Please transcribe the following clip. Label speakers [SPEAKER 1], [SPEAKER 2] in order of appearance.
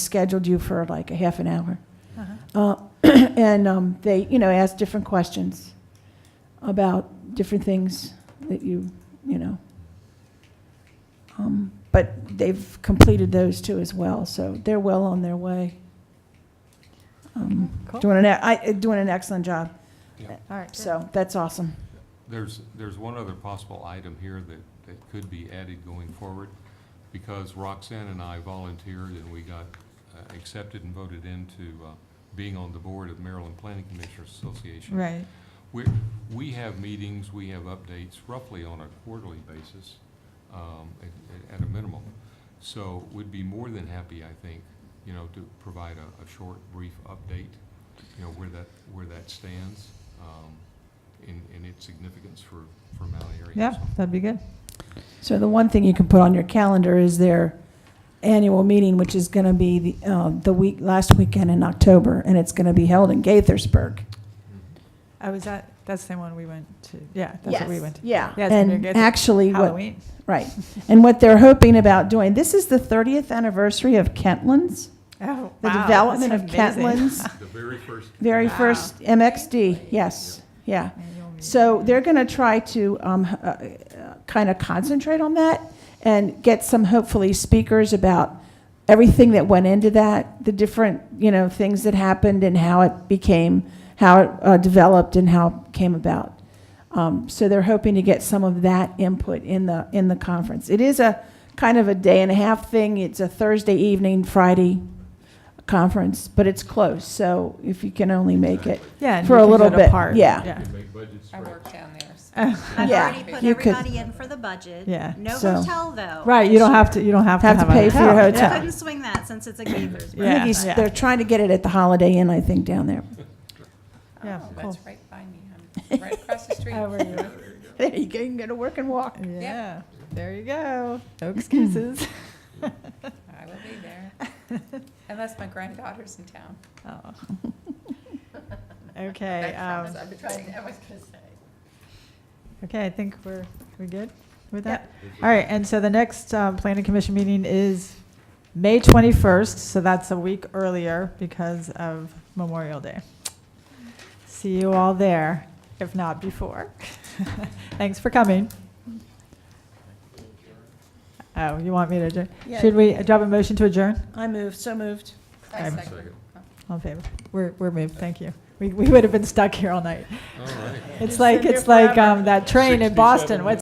[SPEAKER 1] scheduled you for like a half an hour.
[SPEAKER 2] Uh-huh.
[SPEAKER 1] Uh, And um, they, you know, asked different questions about different things that you, you know. Um, But they've completed those too as well, so they're well on their way. Um,
[SPEAKER 2] Cool.
[SPEAKER 1] Doing an, e- I- doing an excellent job,
[SPEAKER 2] All right, so,
[SPEAKER 1] so that's awesome.
[SPEAKER 3] There's, there's one other possible item here that, that could be added going forward, because Roxanne and I volunteered and we got uh, accepted and voted into uh, being on the board of Maryland Planning Commissioners Association.
[SPEAKER 2] right,
[SPEAKER 3] We, we have meetings, we have updates roughly on a quarterly basis, um, at, at a minimum. So would be more than happy, I think, you know, to provide a, a short, brief update, you know, where that, where that stands, um, in, in its significance for, for Mount Airy.
[SPEAKER 2] yeah, that'd be good.
[SPEAKER 1] So the one thing you can put on your calendar is their annual meeting, which is going to be the, uh, the week, last weekend in October, and it's going to be held in Gaithersburg.
[SPEAKER 3] Mm-hmm.
[SPEAKER 2] I was at, that's the one we went to, yeah, that's what we went to.
[SPEAKER 1] Yeah.
[SPEAKER 2] Yeah, it's gonna be
[SPEAKER 1] And
[SPEAKER 2] Gaither-
[SPEAKER 1] actually, what,
[SPEAKER 2] Halloween,
[SPEAKER 1] right, and what they're hoping about doing, this is the 30th anniversary of Kentlands,
[SPEAKER 2] oh, wow.
[SPEAKER 1] the
[SPEAKER 2] that's
[SPEAKER 1] development of
[SPEAKER 2] amazing.
[SPEAKER 1] Kentlands,
[SPEAKER 3] The very first.
[SPEAKER 1] very
[SPEAKER 2] Wow.
[SPEAKER 1] first MXD, yes, yeah.
[SPEAKER 2] Annual meeting.
[SPEAKER 1] So they're going to try to kind of concentrate on that and get some, hopefully, speakers about everything that went into that, the different, you know, things that happened and how it became, how it uh, developed and how it came about. Um, So they're hoping to get some of that input in the, in the conference. It is a kind of a day and a half thing. It's a Thursday evening, Friday conference, but it's close, so if you can only make it.
[SPEAKER 2] Yeah, and
[SPEAKER 1] for
[SPEAKER 2] we
[SPEAKER 1] a
[SPEAKER 2] can go
[SPEAKER 1] little
[SPEAKER 2] to
[SPEAKER 1] bit,
[SPEAKER 2] Park,
[SPEAKER 1] yeah.
[SPEAKER 2] Yeah,
[SPEAKER 3] Could make budget
[SPEAKER 4] I
[SPEAKER 3] spreads.
[SPEAKER 4] work down there. so-
[SPEAKER 2] Oh,
[SPEAKER 5] I've
[SPEAKER 1] Yeah,
[SPEAKER 5] already put
[SPEAKER 1] you could-
[SPEAKER 5] everybody in for the budget.
[SPEAKER 2] Yeah.
[SPEAKER 5] No
[SPEAKER 1] So-
[SPEAKER 5] hotel, though.
[SPEAKER 2] right, you don't have to, you don't have to
[SPEAKER 1] Have
[SPEAKER 2] have
[SPEAKER 1] to
[SPEAKER 2] a
[SPEAKER 1] pay for your hotel.
[SPEAKER 2] Yeah.
[SPEAKER 5] Couldn't swing that since it's a Gaithers.
[SPEAKER 1] I think
[SPEAKER 2] Yeah,
[SPEAKER 1] he's,
[SPEAKER 2] yeah.
[SPEAKER 1] they're trying to get it at the Holiday Inn, I think, down there.
[SPEAKER 2] Yeah,
[SPEAKER 4] Oh,
[SPEAKER 2] cool.
[SPEAKER 4] That's right by me. I'm right across the street.
[SPEAKER 1] There you go, you can go to work and walk.
[SPEAKER 2] Yeah, there you go, no excuses.
[SPEAKER 4] I will be there. Unless my granddaughter's in town.
[SPEAKER 2] Oh. Okay,
[SPEAKER 4] That
[SPEAKER 2] um,
[SPEAKER 4] promise I've been trying, to- I was gonna say.
[SPEAKER 2] okay, I think we're, we good with that?
[SPEAKER 4] Yep.
[SPEAKER 2] All right, and so the next um, planning commission meeting is May 21st, so that's a week earlier because of Memorial Day. See you all there, if not before. Thanks for coming. Oh, you want me to adjourn?
[SPEAKER 1] Yeah.
[SPEAKER 2] Should we, do I have a motion to adjourn?
[SPEAKER 1] I moved, so moved.
[SPEAKER 4] I
[SPEAKER 2] I'm-
[SPEAKER 4] second.
[SPEAKER 2] All in favor? We're, we're moved, thank you. We, we would have been stuck here all night.
[SPEAKER 3] All right.
[SPEAKER 2] It's like, it's like um, that train in Boston, what's